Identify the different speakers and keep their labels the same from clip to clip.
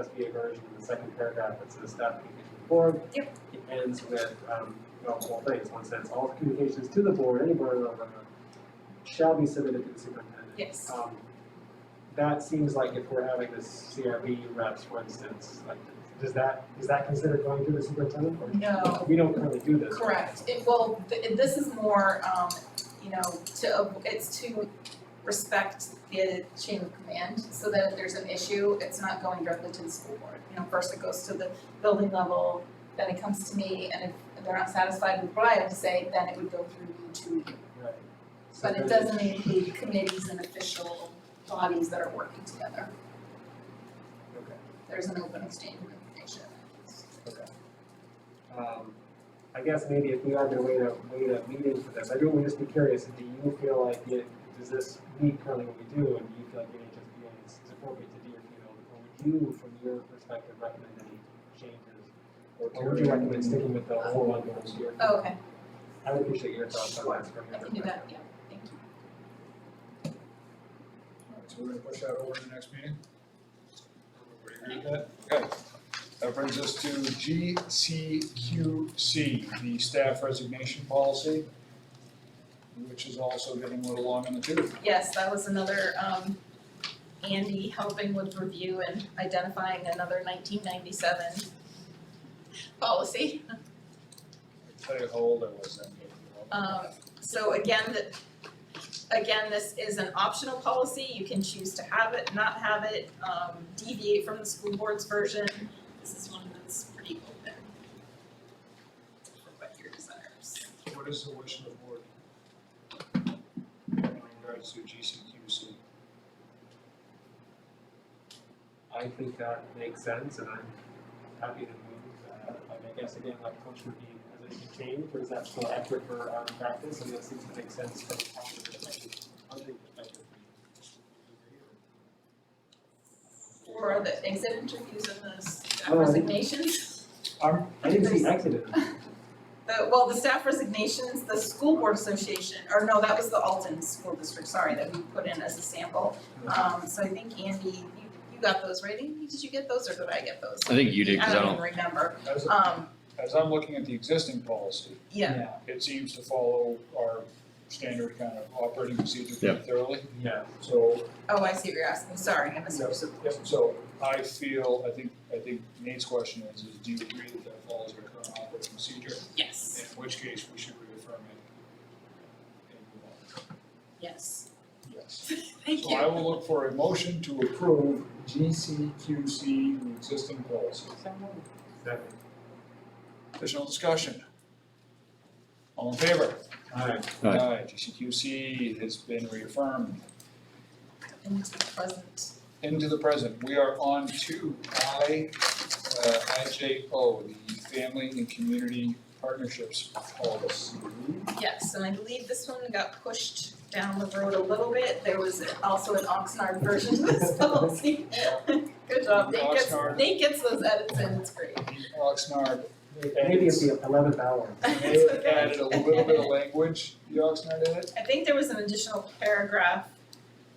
Speaker 1: must be a version in the second paragraph that says staff communication to the board.
Speaker 2: Yep.
Speaker 1: It ends with, um, well, the whole thing, one says, all communications to the board, any board level, shall be submitted to the superintendent.
Speaker 2: Yes.
Speaker 1: Um, that seems like if we're having this CRB reps, for instance, like, does that, is that considered going through the superintendent? or-
Speaker 2: No.
Speaker 1: We don't currently do this. right?
Speaker 2: Correct, it, well, th- this is more, um, you know, to, av- it's to respect the chain of command, so that if there's an issue, it's not going directly to the school board. You know, first it goes to the building level, then it comes to me, and if they're not satisfied with what I have to say, then it would go through you to,
Speaker 1: Right. So
Speaker 2: but it
Speaker 1: then-
Speaker 2: doesn't include committees and official bodies that are working together.
Speaker 1: Okay.
Speaker 2: There's an open exchange of information.
Speaker 1: Um, I guess maybe if we are gonna wait a, wait a meeting for this, I do want to just be curious, do you feel like it, does this meet currently what we do, and do you feel like NHSBA is is appropriate to Deerfield? Or would you, from your perspective, recommend any changes? Or would you recommend sticking with the whole one going to Deerfield?
Speaker 2: Oh, okay,
Speaker 1: I would appreciate your thoughts on that from
Speaker 2: I
Speaker 1: your
Speaker 2: can do
Speaker 1: perspective.
Speaker 2: that, yeah, thank you.
Speaker 3: Alright, so we're gonna push that over to the next meeting? Everybody agree with that? Okay, that brings us to GCQC, the staff resignation policy, which is also getting a little long in the tooth.
Speaker 2: Yes, that was another, um, Andy helping with review and identifying another nineteen ninety-seven policy.
Speaker 3: I tell you how old I was then. but,
Speaker 2: Um, so again, the, again, this is an optional policy, you can choose to have it, not have it, um, deviate from the school board's version. This is one that's pretty open for what your desires.
Speaker 3: well, What is the wish of the board? In regards to GCQC,
Speaker 1: I think that makes sense, and I'm happy to move that. Like, I guess again, like, coach would be, has anything changed, or is that still accurate for our practice, and that seems to make sense from a policy perspective, funding perspective?
Speaker 2: For the exit interviews and the staff
Speaker 1: Oh, I-
Speaker 2: resignations.
Speaker 1: Um, I didn't see exited.
Speaker 2: The, well, the staff resignations, the school board association, or no, that was the Alton School District, sorry, that we put in as a sample. Um, so I think Andy, you, you got those, right? Andy, did you get those or did I get those?
Speaker 4: I think you did, because I
Speaker 2: don't
Speaker 4: don't,
Speaker 2: even remember.
Speaker 3: as,
Speaker 2: Um,
Speaker 3: as I'm looking at the existing policy,
Speaker 2: yeah,
Speaker 3: it seems to follow our standard kind of operating procedure pretty thoroughly.
Speaker 1: Yeah.
Speaker 3: So,
Speaker 2: oh, I see what you're asking, sorry, I misunderstood.
Speaker 3: so I feel, I think, I think Nate's question is, is do you agree that that follows our current operating procedure?
Speaker 2: Yes,
Speaker 3: In which case, we should reaffirm it. and move on.
Speaker 2: yes,
Speaker 3: Yes.
Speaker 2: thank
Speaker 3: So I
Speaker 2: you.
Speaker 3: will look for a motion to approve GCQC, the existing policy.
Speaker 1: Second.
Speaker 3: Additional discussion? All in favor?
Speaker 1: Alright,
Speaker 4: Aye.
Speaker 3: GCQC has been reaffirmed.
Speaker 2: Into the present,
Speaker 3: into the present. We are on to I, uh, IJO, the Family and Community Partnerships Policy.
Speaker 2: yes, and I believe this one got pushed down the road a little bit. There was also an Oxnard version to this policy. Good job, Nate gets,
Speaker 3: Oxnard.
Speaker 2: Nate gets those edits in, it's great.
Speaker 3: Oxnard
Speaker 1: maybe it's the eleventh hour.
Speaker 3: may
Speaker 2: It's
Speaker 3: have
Speaker 2: okay.
Speaker 3: added a little bit of language, the Oxnard edit.
Speaker 2: I think there was an additional paragraph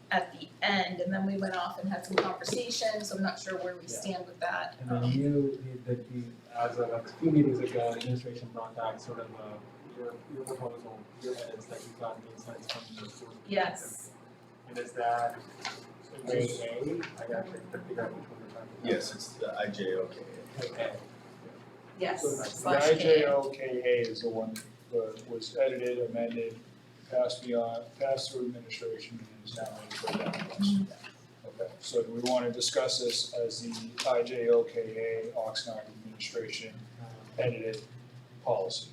Speaker 2: at the end, and then we went off and had some conversation, so I'm not sure where we
Speaker 1: Yeah.
Speaker 2: stand with that.
Speaker 1: And then you, the, the, as of a few meetings ago, the administration brought back sort of, uh, your, your proposal, your edits that you've gotten insights from the board.
Speaker 2: Yes,
Speaker 1: And is that A A? I gotta figure out which one we're talking about.
Speaker 5: Yes, it's the IJOK.
Speaker 1: Okay.
Speaker 2: yes,
Speaker 3: The
Speaker 2: slash K.
Speaker 3: IJOKA is the one that was edited, amended, passed beyond, passed through administration and is now in the document. Okay, so do we want to discuss this as the IJOKA Oxnard Administration
Speaker 1: Um,
Speaker 3: edited policy.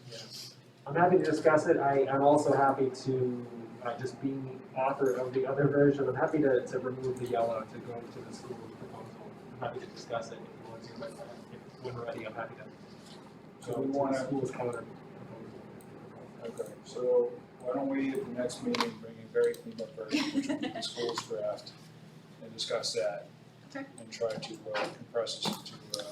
Speaker 1: I'm happy to discuss it. I, I'm also happy to, uh, just be author of the other version. I'm happy to, to remove the yellow to go to the school proposal. I'm happy to discuss it if you want to, but uh, if when we're ready, I'm happy to.
Speaker 3: So
Speaker 1: go
Speaker 3: we
Speaker 1: to the
Speaker 3: wanna-
Speaker 1: School's color.
Speaker 3: Okay, so why don't we at the next meeting bring a very cleaned up version, which will be the school's draft, and discuss that.
Speaker 2: Okay.
Speaker 3: And try to uh, compress this into,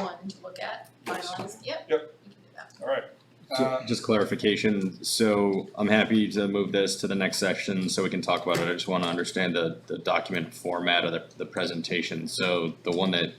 Speaker 2: one to look at,
Speaker 3: Yes.
Speaker 2: finalized, yep.
Speaker 3: Yep.
Speaker 2: We can do that.
Speaker 3: all right, Uh,
Speaker 5: Um,
Speaker 4: Ju- Just clarification, so I'm happy to move this to the next section so we can talk about it. I just want to understand the, the document format of the, the presentation. So the one that